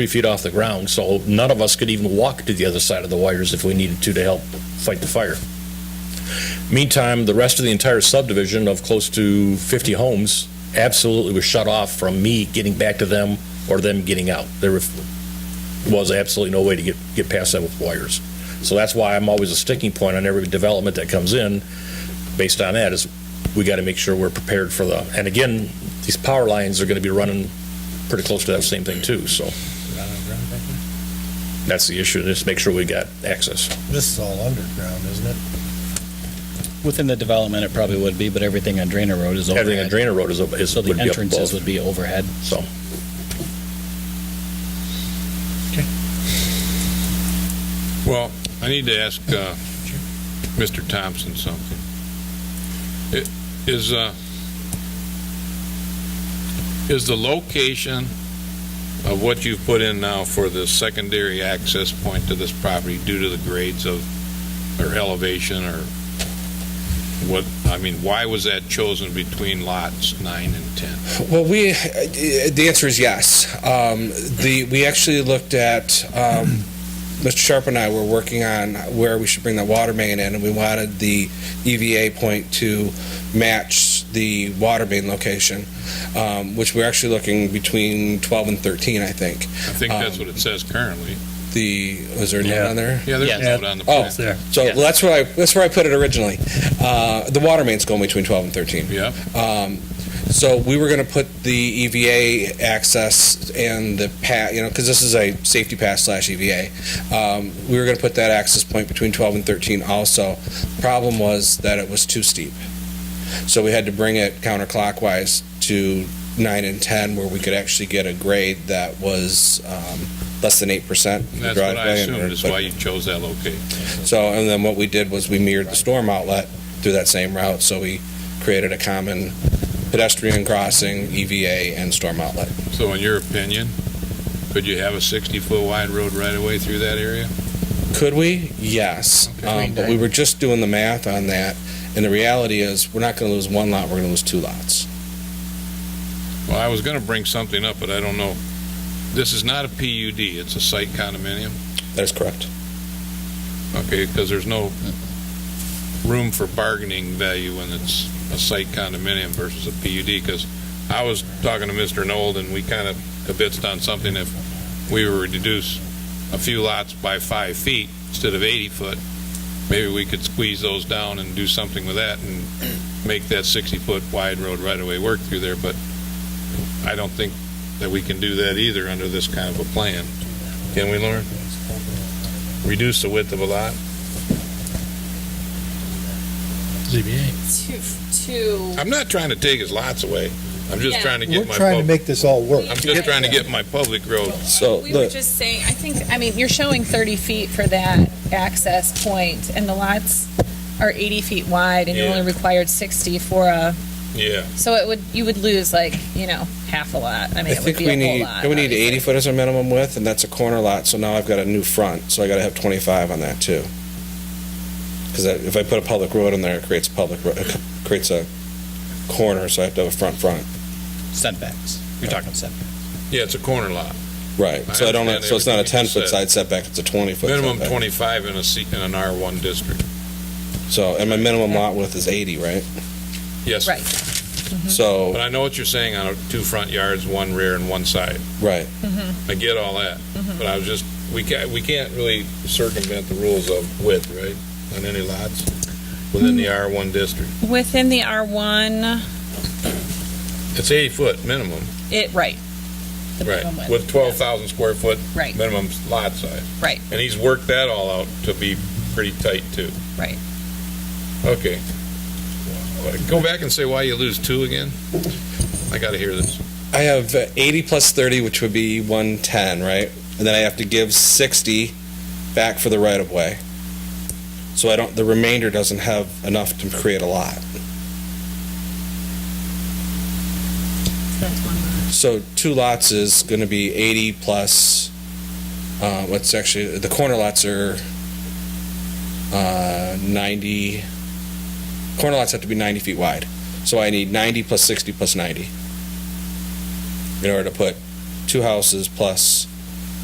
three feet off the ground, so none of us could even walk to the other side of the wires if we needed to to help fight the fire. Meantime, the rest of the entire subdivision of close to 50 homes absolutely was shut off from me getting back to them or them getting out. There were- was absolutely no way to get, get past that with wires. So that's why I'm always a sticking point on every development that comes in, based on that, is we got to make sure we're prepared for the, and again, these power lines are going to be running pretty close to that same thing too, so that's the issue, just make sure we got access. This is all underground, isn't it? Within the development, it probably would be, but everything on Drainer Road is overhead. Everything on Drainer Road is, up- is, So would the be up entrances above, would be overhead. so. Well, I need to ask uh, Mr. Thompson something. I- Is, uh, is the location of what you've put in now for the secondary access point to this property due to the grades of, or elevation, or what, I mean, why was that chosen between lots nine and 10? Well, we, uh, the answer is yes. Um, the, we actually looked at, um, Mr. Sharp and I were working on where we should bring the water main in, and we wanted the EVA point to match the water main location, um, which we're actually looking between 12 and 13, I think. I think that's Um, what it says currently. The, is there a note on there? Yeah, there's Yeah. a note on the Oh. plan. So that's where I, that's where I put it originally. Uh, the water main's going between 12 and 13. Yeah, Um, So we were going to put the EVA access and the pat, you know, because this is a safety pass slash EVA. Um, We were going to put that access point between 12 and 13 also. Problem was that it was too steep. So we had to bring it counterclockwise to 9 and 10 where we could actually get a grade that was um, less than 8%. that's what I driveway and- assumed, is why you chose that location. so, and then what we did was we mirrored the storm outlet through that same route, so we created a common pedestrian crossing, EVA, and storm outlet. So in your opinion, could you have a 60-foot wide road right away through that area? Could we? Yes. Okay. Um, But we were just doing the math on that, and the reality is, we're not going to lose one lot, we're going to lose two lots. Well, I was going to bring something up, but I don't know. This is not a PUD, it's a site condominium, That is correct. okay? Because there's no room for bargaining value when it's a site condominium versus a PUD, because I was talking to Mr. Nold, and we kind of convinced on something if we were to reduce a few lots by five feet instead of 80 foot, maybe we could squeeze those down and do something with that and make that 60-foot wide road right away work through there, but I don't think that we can do that either under this kind of a plan. Can we, Lauren? Reduce the width of a lot? to, to I'm not trying to take his lots away. I'm just Yeah. trying to We're get my, trying to pub- make this all work. I'm just trying to get my public road. So, we were look, just saying, I think, I mean, you're showing 30 feet for that access point, and the lots are 80 feet wide, and you Yeah. only required 60 for a, Yeah. so it would, you would lose like, you know, half a lot. I mean, I it would think be we a whole need, lot. don't we need obviously. 80 foot as a minimum width, and that's a corner lot, so now I've got a new front, so I got to have 25 on that, too. Because if I put a public road in there, it creates public, ro- it creates a corner, so I have to have a front front. Setbacks. You're talking setbacks. Yeah, it's a corner lot. Right, I so I don't, understand so it's not a everything you 10-foot said. side setback, it's a 20-foot Minimum setback. 25 in a C, in an R1 district. So, and my minimum lot width is 80, right? Mm-hmm. Yes. Right. But So, I know what you're saying on a- two front yards, one rear and one side. right, I get all that. Mm-hmm. But I was just, we can't, we can't really circumvent the rules of width, right? On any lots within Mm. the R1 district. Within the R1, It's 80 foot minimum, it, right. The right? minimum width. With 12,000 square foot Right, minimum lot size. Right. And he's worked that all out to be pretty tight too. Right. Okay. Go back and say why you lose two again. I gotta hear this. I have uh, 80 plus 30, which would be 110, right? And then I have to give 60 back for the right-of-way. So I don't, the remainder doesn't have enough to create a lot. So two lots is going to be 80 plus, uh, what's actually, the corner lots are uh, 90, corner lots have to be 90 feet wide. So I need 90 plus 60 plus 90 in order to put two houses plus